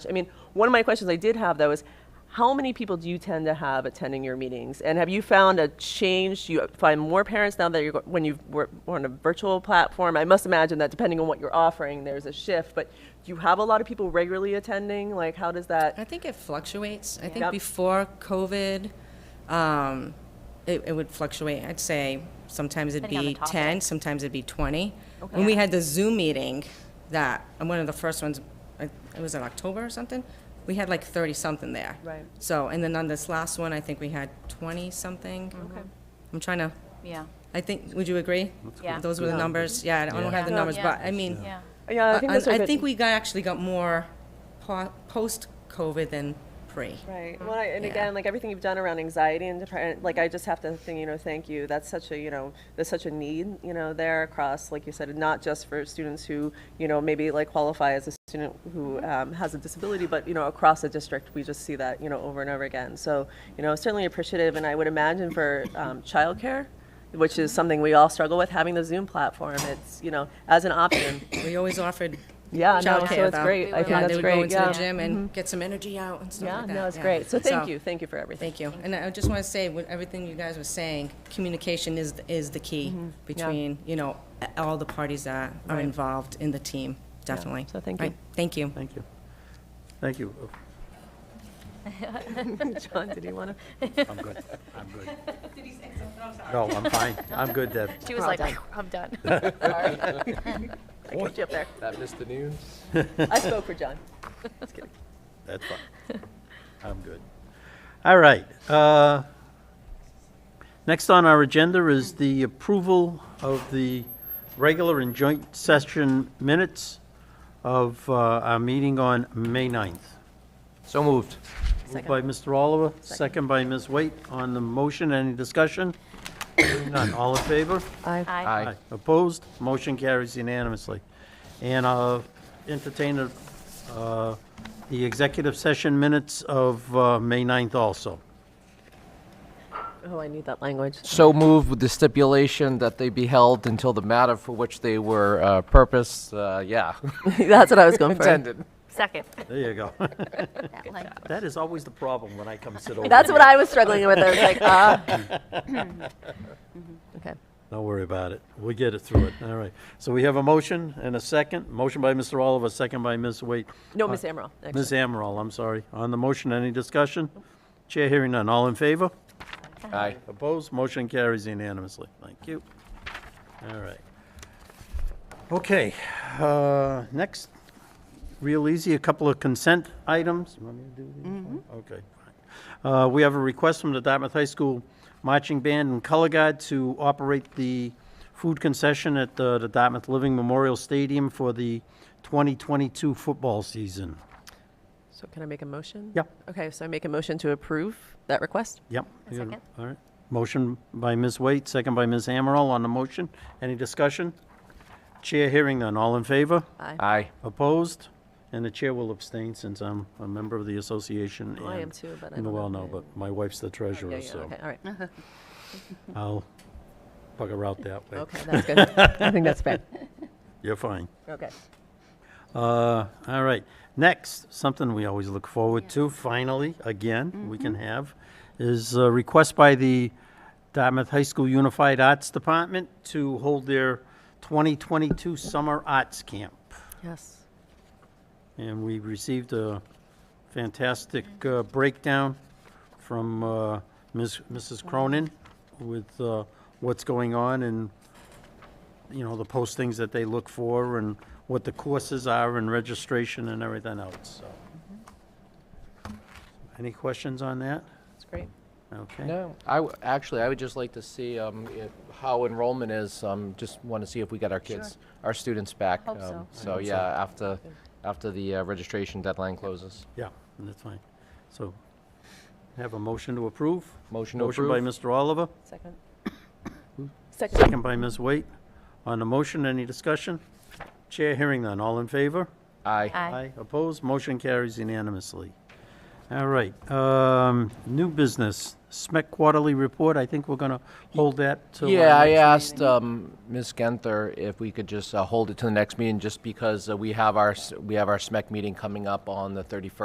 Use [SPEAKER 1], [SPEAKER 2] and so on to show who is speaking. [SPEAKER 1] I mean, one of my questions I did have though is, how many people do you tend to have attending your meetings? And have you found a change? Do you find more parents now that you're go- when you were on a virtual platform? I must imagine that depending on what you're offering, there's a shift. But do you have a lot of people regularly attending? Like, how does that?
[SPEAKER 2] I think it fluctuates. I think
[SPEAKER 1] Yep.
[SPEAKER 2] before COVID, um, it, it would fluctuate. I'd say sometimes it'd
[SPEAKER 3] Depending on
[SPEAKER 2] be
[SPEAKER 3] the topic.
[SPEAKER 2] 10, sometimes it'd be 20. When we had the Zoom meeting, that, and one of the first ones, I- it was in October or something, we had like 30 something there.
[SPEAKER 1] Right.
[SPEAKER 2] So, and then on this last one, I think we had 20 something.
[SPEAKER 1] Okay.
[SPEAKER 2] I'm trying to,
[SPEAKER 3] Yeah,
[SPEAKER 2] I think, would you agree?
[SPEAKER 3] Yeah.
[SPEAKER 2] Those were the numbers. Yeah, I don't have the
[SPEAKER 3] Yeah.
[SPEAKER 2] numbers,
[SPEAKER 3] Yeah.
[SPEAKER 2] but I mean,
[SPEAKER 3] yeah.
[SPEAKER 1] Yeah, I think
[SPEAKER 2] I
[SPEAKER 1] those are
[SPEAKER 2] I
[SPEAKER 1] good-
[SPEAKER 2] think we got, actually got more po- post-COVID than pre.
[SPEAKER 1] Right. Well, I, and
[SPEAKER 2] Yeah.
[SPEAKER 1] again, like everything you've done around anxiety and depression, like I just have to think, you know, thank you. That's such a, you know, there's such a need, you know, there across, like you said, not just for students who, you know, maybe like qualify as a student who um, has a disability, but you know, across the district, we just see that, you know, over and over again. So, you know, certainly appreciative, and I would imagine for um, childcare. Which is something we all struggle with having the Zoom platform. It's you know as an option.
[SPEAKER 2] We always offered
[SPEAKER 1] Yeah, no,
[SPEAKER 2] childcare,
[SPEAKER 1] so it's
[SPEAKER 2] though.
[SPEAKER 1] great. I think
[SPEAKER 2] Yeah,
[SPEAKER 1] that's
[SPEAKER 2] they would
[SPEAKER 1] great,
[SPEAKER 2] go into
[SPEAKER 1] yeah. Mm-hmm.
[SPEAKER 2] the gym and get some energy out and stuff
[SPEAKER 1] Yeah,
[SPEAKER 2] like that.
[SPEAKER 1] no, it's
[SPEAKER 2] yeah.
[SPEAKER 1] great. So thank you, thank you for everything.
[SPEAKER 2] Thank you. And I just want to say, with everything you guys were saying, communication is, is the key
[SPEAKER 1] Mm-hmm.
[SPEAKER 2] between, you know, a- all the parties that are involved in the team, definitely.
[SPEAKER 1] so thank
[SPEAKER 2] Right,
[SPEAKER 1] you.
[SPEAKER 2] Thank you.
[SPEAKER 4] Thank you. Thank you.
[SPEAKER 1] John, did you want to?
[SPEAKER 4] I'm good. I'm good. No, I'm fine. I'm good, Deb.
[SPEAKER 3] She was like, I'm done.
[SPEAKER 1] I got you up there.
[SPEAKER 5] That missed the news.
[SPEAKER 1] I spoke for John. Just kidding.
[SPEAKER 4] That's fine. I'm good. All right. uh, Next on our agenda is the approval of the regular and joint session minutes of uh, our meeting on May 9th.
[SPEAKER 5] So moved.
[SPEAKER 4] Moved by Mr. Oliver, second by Ms. Waite. On the motion, any discussion? Hearing None. All in favor?
[SPEAKER 3] Aye.
[SPEAKER 4] Opposed? Motion carries unanimously. And I'll entertain uh, the executive session minutes of uh, May 9th also.
[SPEAKER 1] Oh, I need that language.
[SPEAKER 5] So moved with the stipulation that they be held until the matter for which they were uh, purposed, uh, yeah,
[SPEAKER 1] That's what I was going for.
[SPEAKER 5] intended.
[SPEAKER 3] Second.
[SPEAKER 4] There you go.
[SPEAKER 3] Like,
[SPEAKER 4] That is always the problem when I come sit over
[SPEAKER 1] That's
[SPEAKER 4] here.
[SPEAKER 1] what I was struggling with. I was like, ah. okay.
[SPEAKER 4] Don't worry about it. We'll get it through it. All right. So we have a motion and a second. Motion by Mr. Oliver, second by Ms. Waite.
[SPEAKER 1] No, Uh, Miss Amaral.
[SPEAKER 4] Ms. Amaral, I'm sorry. On the motion, any discussion? Chair hearing none. All in favor?
[SPEAKER 5] Aye.
[SPEAKER 4] Opposed? Motion carries unanimously. Thank you. All right. Okay, uh, next, real easy, a couple of consent items. You want me to do these? Okay, fine. Uh, We have a request from the Dartmouth High School Marching Band and Color Guard to operate the food concession at uh, the the Dartmouth Living Memorial Stadium for the 2022 football season.
[SPEAKER 1] So can I make a motion?
[SPEAKER 4] Yep.
[SPEAKER 1] Okay, so I make a motion to approve that request.
[SPEAKER 4] Yep.
[SPEAKER 3] A second.
[SPEAKER 4] All right. Motion by Ms. Waite, second by Ms. Amaral on the motion. Any discussion? Chair hearing none. All in favor?
[SPEAKER 5] Aye.
[SPEAKER 4] Opposed? And the chair will abstain since I'm a member of the association.
[SPEAKER 1] I am
[SPEAKER 4] and-
[SPEAKER 1] too, but I
[SPEAKER 4] and
[SPEAKER 1] don't
[SPEAKER 4] Well,
[SPEAKER 1] know.
[SPEAKER 4] no, but my wife's the
[SPEAKER 1] Yeah,
[SPEAKER 4] treasurer,
[SPEAKER 1] yeah,
[SPEAKER 4] so
[SPEAKER 1] okay, all right.
[SPEAKER 4] I'll bugger out that way.
[SPEAKER 1] Okay, that's good. I think that's fair.
[SPEAKER 4] You're fine.
[SPEAKER 1] Okay.
[SPEAKER 4] Uh, all right. Next, something we always look forward to, finally, again, we can have, is a request by the Dartmouth High School Unified Arts Department to hold their 2022 Summer Arts Camp.
[SPEAKER 1] Yes.
[SPEAKER 4] And we received a fantastic uh, breakdown from uh, Ms., Mrs. Cronin with uh, what's going on and, you know, the postings that they look for and what the courses are and registration and everything else, so. Any questions on that?
[SPEAKER 1] That's great.
[SPEAKER 4] Okay.
[SPEAKER 5] No, I, w- actually, I would just like to see um, if- how enrollment is, um, just want to see if we got our kids, our students back.
[SPEAKER 3] Hope
[SPEAKER 5] um,
[SPEAKER 3] so.
[SPEAKER 5] So, yeah, after, after the uh, registration deadline closes.
[SPEAKER 4] Yeah, that's fine. So, have a motion to approve?
[SPEAKER 5] Motion to
[SPEAKER 4] Motion
[SPEAKER 5] approve.
[SPEAKER 4] by Mr. Oliver?
[SPEAKER 1] Second.
[SPEAKER 4] Second by Ms. Waite. On the motion, any discussion? Chair hearing none. All in favor?
[SPEAKER 5] Aye.
[SPEAKER 3] Aye.
[SPEAKER 4] Opposed? Motion carries unanimously. All right, um, new business, SMEC quarterly report, I think we're gonna hold that till. our
[SPEAKER 5] Yeah, I
[SPEAKER 4] next-
[SPEAKER 5] asked um, Ms. Genther if we could just uh, hold it to the next meeting, just because uh, we have our, s- we have our SMEC meeting E coming up on the 31st.